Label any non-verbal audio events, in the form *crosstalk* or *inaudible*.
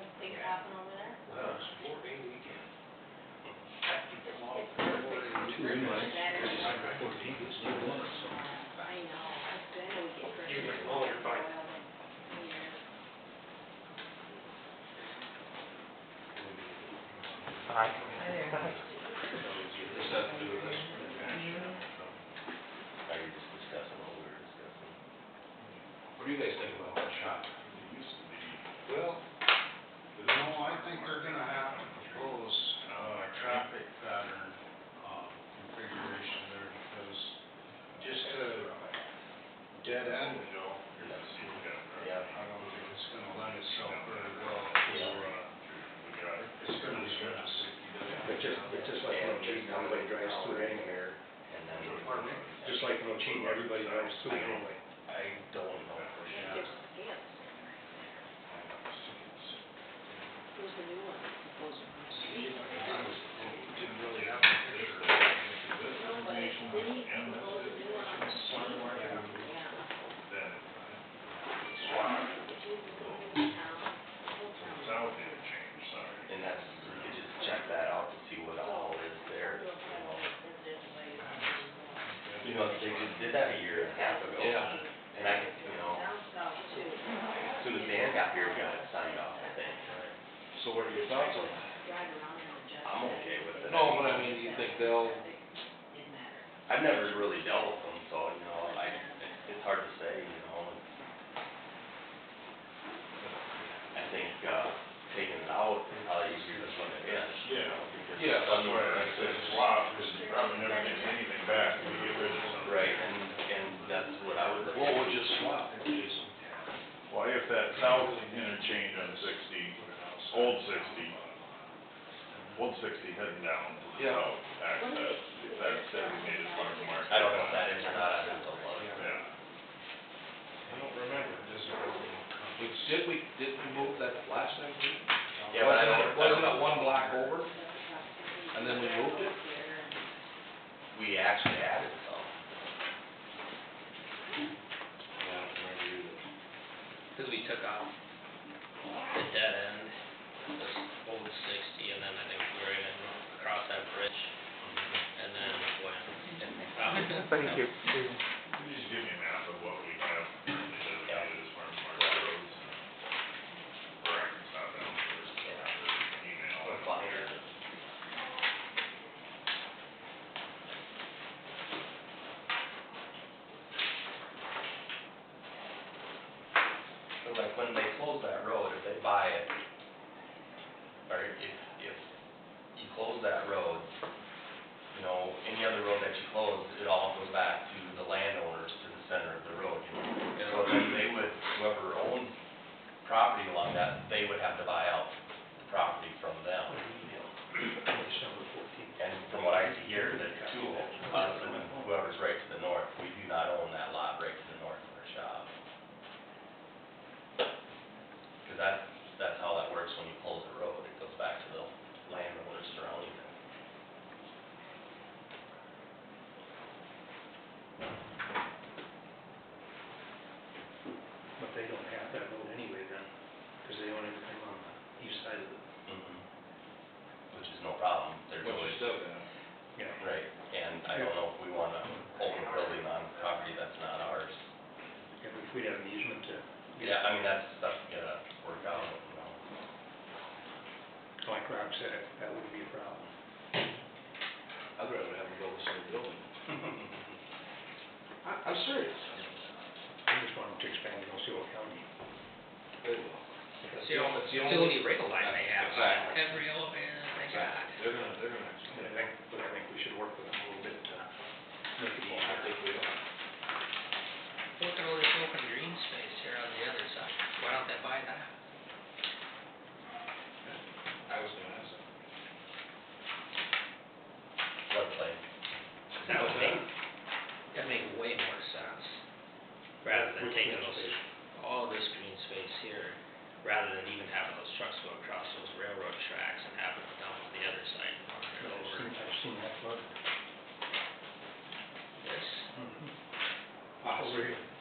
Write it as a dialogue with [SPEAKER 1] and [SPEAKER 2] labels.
[SPEAKER 1] happen over there?
[SPEAKER 2] Well, it's four day weekend.
[SPEAKER 1] It's perfect.
[SPEAKER 2] Two invites,
[SPEAKER 1] Saturday.
[SPEAKER 2] I got fourteen, it's two months, so.
[SPEAKER 1] I know, I said we get first.
[SPEAKER 2] You can hold your bike. Is that to do with this?
[SPEAKER 3] Are you just discussing what we were discussing?
[SPEAKER 2] What do you guys think about that shop? It used to be. Well, no, I think they're gonna have to propose, uh, traffic pattern, uh, configuration there because just a dead end, you know,
[SPEAKER 3] Yeah.
[SPEAKER 2] I don't think it's gonna lend itself very well
[SPEAKER 3] Yeah.
[SPEAKER 2] for, uh, it's gonna be drastic.
[SPEAKER 4] But just, but just like in Ocean, everybody drives through it anywhere.
[SPEAKER 3] And then.
[SPEAKER 2] Pardon me?
[SPEAKER 4] Just like in Ocean, everybody drives through it anyway.
[SPEAKER 3] I don't know for
[SPEAKER 1] I
[SPEAKER 3] sure.
[SPEAKER 1] think there's scales. There's a new one supposed to be.
[SPEAKER 2] Didn't really have a picture of it.
[SPEAKER 1] No, but then he proposed a new one on the street. Yeah.
[SPEAKER 2] Then,
[SPEAKER 1] If you can go into town, whole town.
[SPEAKER 2] change, sorry.
[SPEAKER 3] And that's, you could just check that out to see what all is there, you know. You know, they just did that a year and a half ago.
[SPEAKER 2] Yeah.
[SPEAKER 3] And I, could, you know,
[SPEAKER 1] Down south too.
[SPEAKER 3] as soon as Dan got here, we got it signed off, I think.
[SPEAKER 5] So what are your thoughts on that?
[SPEAKER 1] Drive around in the jet.
[SPEAKER 3] I'm okay with it.
[SPEAKER 5] No, but I mean, you think they'll,
[SPEAKER 1] Didn't matter.
[SPEAKER 3] I've never really dealt with them, so, you know, I, it's- it's hard to say, you know, it's. I think, uh, taking it out is probably easier than putting it in. you
[SPEAKER 2] Yeah.
[SPEAKER 3] know, because
[SPEAKER 5] Yeah,
[SPEAKER 3] it's
[SPEAKER 2] That's why
[SPEAKER 3] under-
[SPEAKER 2] I said swap, because you probably never get anything back when you get rid of something.
[SPEAKER 3] Right, and, and that's what I would.
[SPEAKER 5] what would you swap?
[SPEAKER 2] Well, if that south interchange on sixty, old sixty, old sixty heading down,
[SPEAKER 5] Yeah.
[SPEAKER 2] south access, if that's designated farm market.
[SPEAKER 3] I don't know if that is or not, I have to look.
[SPEAKER 2] Yeah.
[SPEAKER 5] I don't remember. We- Did we, did we move that last time?
[SPEAKER 3] Yeah, but I
[SPEAKER 5] Wasn't
[SPEAKER 3] don't.
[SPEAKER 5] it- Wasn't it one block over? And then we moved it?
[SPEAKER 3] We actually added some.
[SPEAKER 6] Cause we took off the dead end, this old sixty, and then I think we were gonna cross that bridge, and then went. Thank
[SPEAKER 2] Can you
[SPEAKER 6] you.
[SPEAKER 2] just give me a map of what we have designated as farm market roads? Right, it's not that, there's, there's email.
[SPEAKER 3] Or five. So like when they close that road, if they buy it, or if, if you close that road, you know, any other road that you close, it all goes back to the landowners to the center of the road. So then they would, whoever owns property along that, they would have to buy out the property from them. And from what I see here, the two of us and whoever's right to the north, we do not own that lot right to the north of our shop. Because that's, that's how that works when you close a road, it goes back to the landowners surrounding it.
[SPEAKER 4] But they don't have that road anyway then, because they own everything on the east side of the,
[SPEAKER 3] Mhm. Which is no problem, there's
[SPEAKER 5] What you
[SPEAKER 3] always,
[SPEAKER 5] still got?
[SPEAKER 4] yeah.
[SPEAKER 3] right, and I don't know if we want to own a building on property that's not ours.
[SPEAKER 4] If we- if we'd have an easement to,
[SPEAKER 3] Yeah, I mean, that's, that's gonna work out, you know.
[SPEAKER 4] like Rob said, that wouldn't be a problem.
[SPEAKER 5] I'd rather have them go with some building. *laughs* I, I'm serious.
[SPEAKER 4] I just want them to expand in Osceola County.
[SPEAKER 5] They will.
[SPEAKER 6] It's the only utility rail line they have, on every elevator they got.
[SPEAKER 5] They're gonna, they're gonna.
[SPEAKER 4] But I think, but I think we should work with them a little bit to make it
[SPEAKER 5] Well, I
[SPEAKER 4] easier.
[SPEAKER 5] think we are.
[SPEAKER 6] Look at all this open green space here on the other side, why don't they buy that?
[SPEAKER 5] I was gonna ask them.
[SPEAKER 3] floodplain.
[SPEAKER 6] That would make, that'd make way more sense, rather than
[SPEAKER 4] Which
[SPEAKER 6] taking
[SPEAKER 4] green
[SPEAKER 6] those,
[SPEAKER 4] space?
[SPEAKER 6] all this green space here, rather than even having those trucks go across those railroad tracks and having them down to the other side and run it
[SPEAKER 4] I've
[SPEAKER 6] over.
[SPEAKER 4] seen, I've seen that flood.
[SPEAKER 6] This,
[SPEAKER 5] Oh,
[SPEAKER 4] Over here.